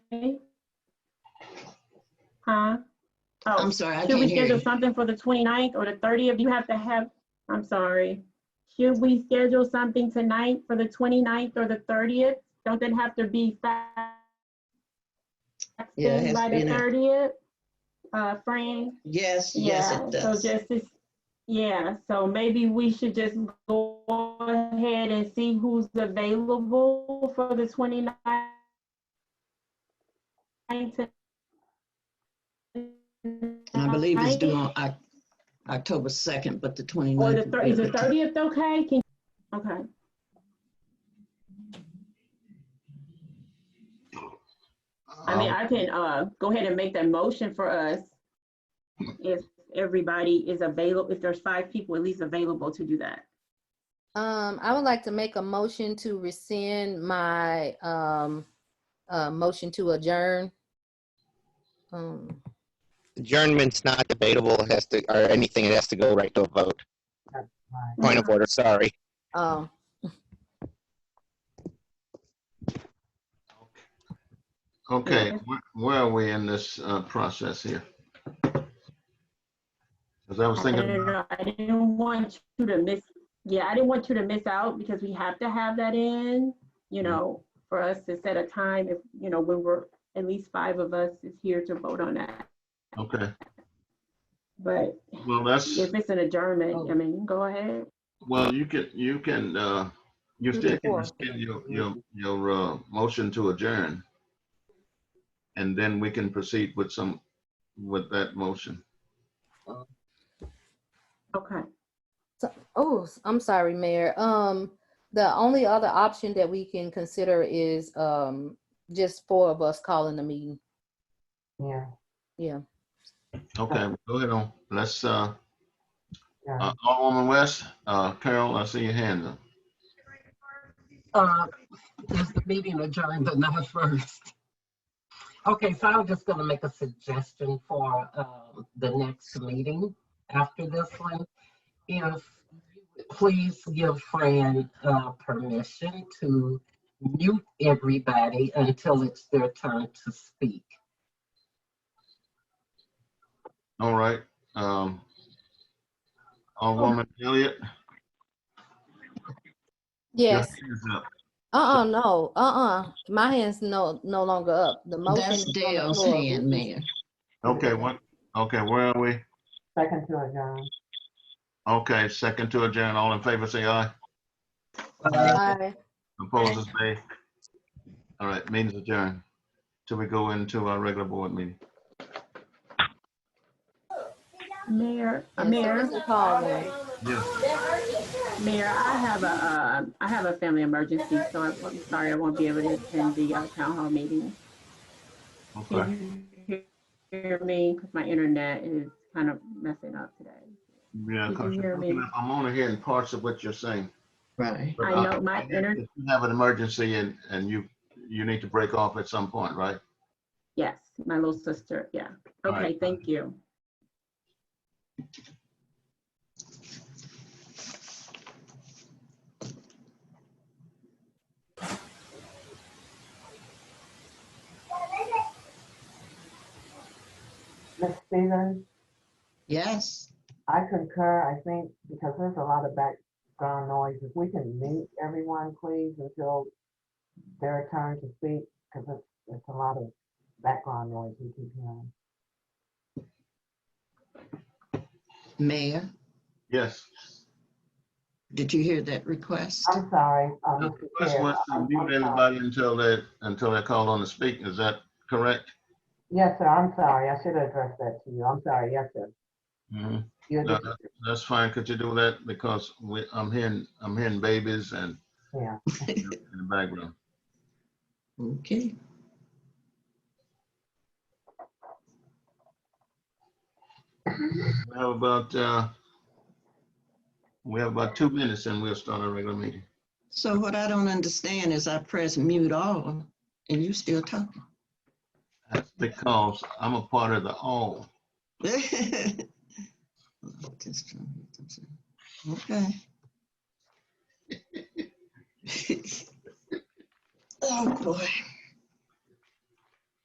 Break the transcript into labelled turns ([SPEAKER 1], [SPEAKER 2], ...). [SPEAKER 1] Huh? Oh,
[SPEAKER 2] I'm sorry, I
[SPEAKER 1] should we
[SPEAKER 2] can't hear
[SPEAKER 1] schedule
[SPEAKER 2] you.
[SPEAKER 1] something for the 29th or the 30th? You have to have, I'm sorry. Should we schedule something tonight for the 29th or the 30th? Don't that have to be fa-
[SPEAKER 2] Yeah, it has
[SPEAKER 1] by
[SPEAKER 2] to be
[SPEAKER 1] the
[SPEAKER 2] in a-
[SPEAKER 1] 30th? Uh, Fran?
[SPEAKER 2] Yes, yes,
[SPEAKER 1] Yeah,
[SPEAKER 2] it does.
[SPEAKER 1] So just, this- yeah, so maybe we should just go ahead and see who's available for the 29th.
[SPEAKER 2] I believe it's due
[SPEAKER 1] tonight.
[SPEAKER 2] on Oc- October 2nd, but the
[SPEAKER 1] Or the,
[SPEAKER 2] 29th.
[SPEAKER 1] thir- is the
[SPEAKER 2] would be okay.
[SPEAKER 1] thirtieth okay? Can, okay, I mean, I can, uh, go ahead and make that motion for us. If everybody is available, if there's five people at least available to do that.
[SPEAKER 3] Um, I would like to make a motion to rescind my, um, uh, motion to adjourn. Um,
[SPEAKER 4] adjournment's not debatable, it has to, or anything, it has to go right to a vote. Point of order, sorry.
[SPEAKER 3] um,
[SPEAKER 5] Okay, wh- where are we in this uh, process here? Because I was
[SPEAKER 1] I
[SPEAKER 5] thinking,
[SPEAKER 1] don't
[SPEAKER 5] about-
[SPEAKER 1] know, I didn't want you to miss, yeah, I didn't want you to miss out because we have to have that in, you
[SPEAKER 5] Mm-hmm.
[SPEAKER 1] know, for us to set a time if, you know, when we're, at least five of us is here to vote on that.
[SPEAKER 5] okay,
[SPEAKER 1] But
[SPEAKER 5] well, that's,
[SPEAKER 1] if it's an adjournment, I mean, go ahead.
[SPEAKER 5] well, you can, you can, uh, you
[SPEAKER 3] Do
[SPEAKER 5] still can
[SPEAKER 3] before.
[SPEAKER 5] rescind your, your, your uh, motion to adjourn. And then we can proceed with some, with that motion.
[SPEAKER 1] Okay.
[SPEAKER 3] oh, s- I'm sorry, Mayor. Um, the only other option that we can consider is, um, just four of us calling the meeting.
[SPEAKER 6] Yeah,
[SPEAKER 3] Yeah.
[SPEAKER 5] Okay, go ahead on, let's, uh,
[SPEAKER 6] yeah.
[SPEAKER 5] uh, Alderman West, uh, Carol, I see your hand up.
[SPEAKER 6] Uh, Is the meeting adjourned or not first? Okay, so I'm just gonna make a suggestion for um, the next meeting after this one. If, please give Fran uh, permission to mute everybody until it's their turn to speak.
[SPEAKER 5] All right, um, Alderman Elliott? your
[SPEAKER 3] Yes.
[SPEAKER 5] hand is up.
[SPEAKER 3] Uh-uh, no, uh-uh. My hand's no, no longer up. The motion.
[SPEAKER 2] That's
[SPEAKER 3] is on the
[SPEAKER 2] Dale's
[SPEAKER 3] floor.
[SPEAKER 2] hand, Mayor.
[SPEAKER 5] Okay, what, okay, where are we?
[SPEAKER 6] Second to adjourn.
[SPEAKER 5] Okay, second to adjourn, all in favor, say aye.
[SPEAKER 3] Aye.
[SPEAKER 5] Opposed, say. All right, meeting's adjourned, till we go into our regular board meeting.
[SPEAKER 1] Mayor, uh,
[SPEAKER 3] And so
[SPEAKER 1] Mayor,
[SPEAKER 3] is the call roll.
[SPEAKER 5] Yeah.
[SPEAKER 1] Mayor, I have a, uh, I have a family emergency, so I'm I'm sorry I won't be able to attend the uh, town hall meeting.
[SPEAKER 5] Okay,
[SPEAKER 1] Can you Hear me, because my internet is kind of messing up today.
[SPEAKER 5] yeah,
[SPEAKER 1] You can
[SPEAKER 5] 'cause
[SPEAKER 1] hear me.
[SPEAKER 5] I'm only hearing parts of what you're saying.
[SPEAKER 2] Right.
[SPEAKER 5] but,
[SPEAKER 1] I
[SPEAKER 5] uh,
[SPEAKER 1] know my inter-
[SPEAKER 5] If you have an emergency and, and you, you need to break off at some point, right?
[SPEAKER 1] Yes, my little sister, yeah.
[SPEAKER 5] All right.
[SPEAKER 1] Okay, thank you.
[SPEAKER 6] Ms. Stevens,
[SPEAKER 2] Yes.
[SPEAKER 6] I concur, I think, because there's a lot of background noise. If we can mute everyone, please, until their turn to speak, because it's, it's a lot of background noise we keep hearing.
[SPEAKER 2] Mayor,
[SPEAKER 5] Yes.
[SPEAKER 2] did you hear that request?
[SPEAKER 6] I'm sorry. uh,
[SPEAKER 5] The
[SPEAKER 6] Mr.
[SPEAKER 5] request
[SPEAKER 6] Chair,
[SPEAKER 5] was
[SPEAKER 6] I'm-
[SPEAKER 5] to
[SPEAKER 6] I'm
[SPEAKER 5] mute
[SPEAKER 6] sorry.
[SPEAKER 5] everybody until they, until they're called on to speak, is that correct?
[SPEAKER 6] Yes, sir, I'm sorry. I should have addressed that to you. I'm sorry, yes, sir.
[SPEAKER 5] Mm-hmm.
[SPEAKER 6] You're
[SPEAKER 5] No,
[SPEAKER 6] just-
[SPEAKER 5] that- that's fine. Could you do that? Because we, I'm hearing, I'm hearing babies and
[SPEAKER 6] Yeah,
[SPEAKER 5] in the background.
[SPEAKER 2] Okay.
[SPEAKER 5] We have about, uh, we have about two minutes and we'll start our regular meeting.
[SPEAKER 2] So what I don't understand is I press mute all and you still talking.
[SPEAKER 5] That's because I'm a part of the all.
[SPEAKER 2] Okay. Oh, boy.